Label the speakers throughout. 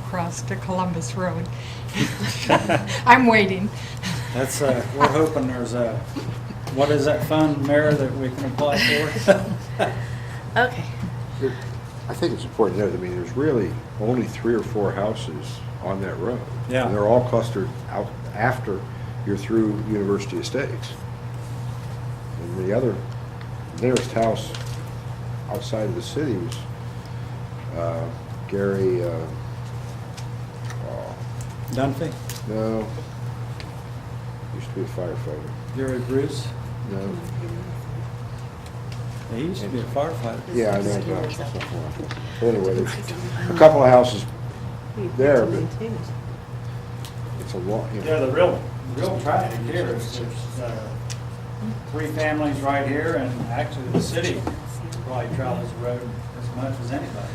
Speaker 1: across to Columbus Road. I'm waiting.
Speaker 2: That's, uh, we're hoping there's a, what is that fund, Mayor, that we can apply for?
Speaker 3: Okay.
Speaker 4: I think it's important to note, I mean, there's really only three or four houses on that road.
Speaker 2: Yeah.
Speaker 4: And they're all clustered out after you're through University Estates. And the other nearest house outside of the city was uh, Gary, uh, oh,
Speaker 2: Dunphy,
Speaker 4: no, used to be a firefighter.
Speaker 2: Gary Bruce,
Speaker 4: No,
Speaker 2: he used to be a firefighter.
Speaker 4: yeah, I know. no, it's not one. But Anyway, there's a couple of houses, There, but- it's a lot, you know.
Speaker 2: Yeah, the real, real tragedy here is there's, uh, three families right here and actually the city probably travels the road as much as anybody.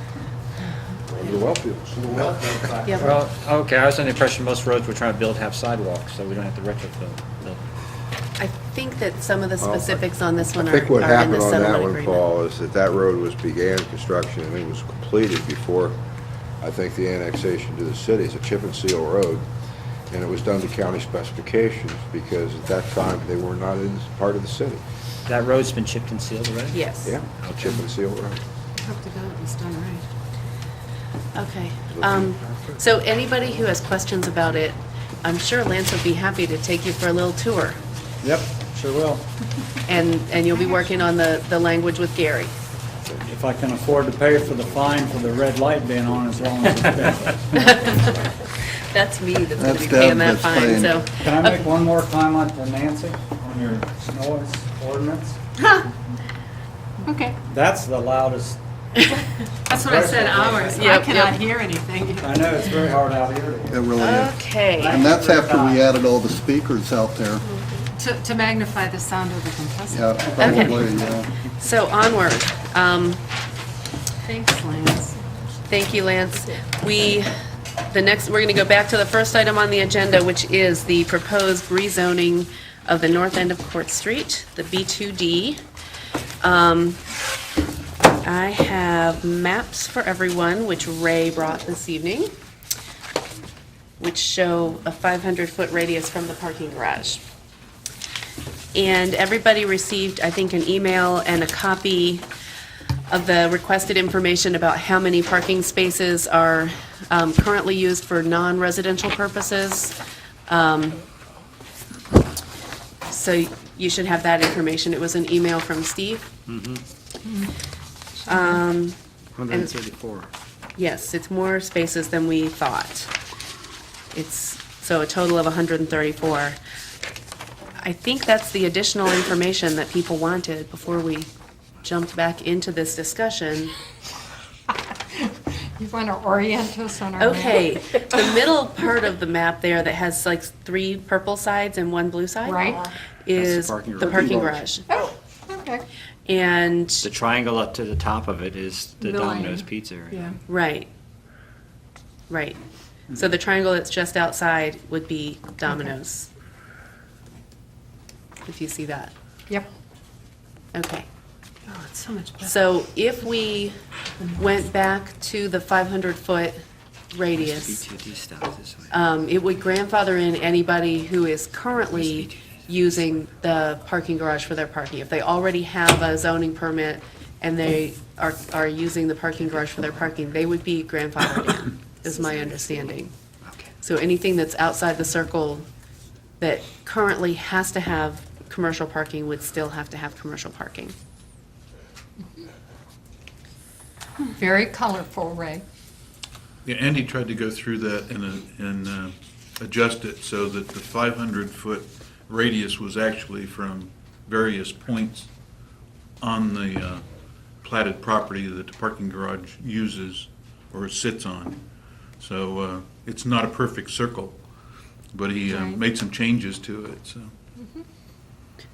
Speaker 4: The well fields.
Speaker 2: The welfare factor.
Speaker 3: Yep.
Speaker 5: Well, okay, I was under the impression most roads we're trying to build have sidewalks, so we don't have to retrofit them.
Speaker 3: I think that some of the
Speaker 4: Well, I-
Speaker 3: specifics on this
Speaker 4: I
Speaker 3: one are are
Speaker 4: think what
Speaker 3: in the
Speaker 4: happened on that
Speaker 3: settlement
Speaker 4: one,
Speaker 3: agreement.
Speaker 4: Paul, is that that road was, began construction and it was completed before, I think, the annexation to the city. It's a chip and seal road, and it was done to county specifications because at that time, they were not in part of the city.
Speaker 5: That road's been chipped and sealed already?
Speaker 3: Yes.
Speaker 4: Yeah, a chip and seal road.
Speaker 3: Hope to God it was done right. Okay. um, So anybody who has questions about it, I'm sure Lance would be happy to take you for a little tour.
Speaker 2: Yep, sure will.
Speaker 3: And, and you'll be working on the, the language with Gary.
Speaker 2: If I can afford to pay for the fine for the red light being on as long as it's been.
Speaker 3: That's me that's going to be
Speaker 6: That's
Speaker 3: paying
Speaker 6: them
Speaker 3: that
Speaker 6: that's
Speaker 3: fine,
Speaker 6: paying.
Speaker 3: so.
Speaker 2: Can I make one more comment to Nancy on your noise ordinance?
Speaker 7: Okay,
Speaker 2: That's the loudest,
Speaker 7: that's what I said, ours. I
Speaker 3: Yep,
Speaker 7: cannot
Speaker 3: yep.
Speaker 7: hear anything.
Speaker 2: I know it's very hard out here.
Speaker 6: It
Speaker 2: to-
Speaker 6: really is.
Speaker 3: Okay.
Speaker 6: And that's after we added all the speakers out there.
Speaker 7: To to magnify the sound of the compressor.
Speaker 6: Yeah, probably, yeah.
Speaker 3: So onward. Um,
Speaker 7: Thanks, Lance.
Speaker 3: Thank you, Lance. We, the next, we're going to go back to the first item on the agenda, which is the proposed rezoning of the north end of Court Street, the B2D. Um, I have maps for everyone, which Ray brought this evening, which show a 500-foot radius from the parking garage. And everybody received, I think, an email and a copy of the requested information about how many parking spaces are um, currently used for non-residential purposes. Um, So you should have that information. It was an email from Steve. Um, and- Yes, it's more spaces than we thought. It's, so a total of 134. I think that's the additional information that people wanted before we jumped back into this discussion.
Speaker 1: You want to orient us on our map?
Speaker 3: Okay, the middle part of the map there that has like three purple sides and one blue side.
Speaker 1: Right.
Speaker 3: Is
Speaker 5: That's the parking
Speaker 3: the
Speaker 5: garage.
Speaker 3: parking garage.
Speaker 1: Oh, okay.
Speaker 3: And,
Speaker 5: The triangle up to the top of it is the
Speaker 7: The line.
Speaker 5: Domino's Pizza area.
Speaker 7: Yeah.
Speaker 3: right, right. So the triangle that's just outside would be Domino's. If you see that.
Speaker 1: Yep.
Speaker 3: Okay.
Speaker 7: Oh, it's so much better.
Speaker 3: So if we went back to the 500-foot radius,
Speaker 5: B2D stops this way.
Speaker 3: um, it would grandfather in anybody who is currently using the parking garage for their parking. If they already have a zoning permit and they are, are using the parking garage for their parking, they would be grandfathered in, is my understanding.
Speaker 5: Okay.
Speaker 3: So anything that's outside the circle that currently has to have commercial parking would still have to have commercial parking.
Speaker 1: Very colorful, Ray.
Speaker 8: Yeah, Andy tried to go through that and, uh, and uh, adjust it so that the 500-foot radius was actually from various points on the uh, platted property that the parking garage uses or sits on. So uh, it's not a perfect circle, but he uh,
Speaker 1: Right.
Speaker 8: made some changes to it, so.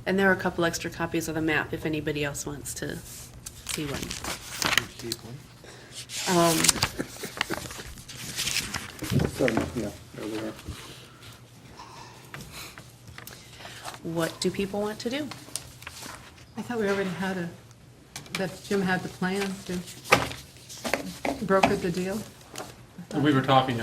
Speaker 3: And there are a couple extra copies of the map if anybody else wants to see one. Um,
Speaker 6: So, yeah, there we are.
Speaker 3: What do people want to do?
Speaker 7: I thought we already had a, that Jim had the plan to broker the deal.
Speaker 9: We were talking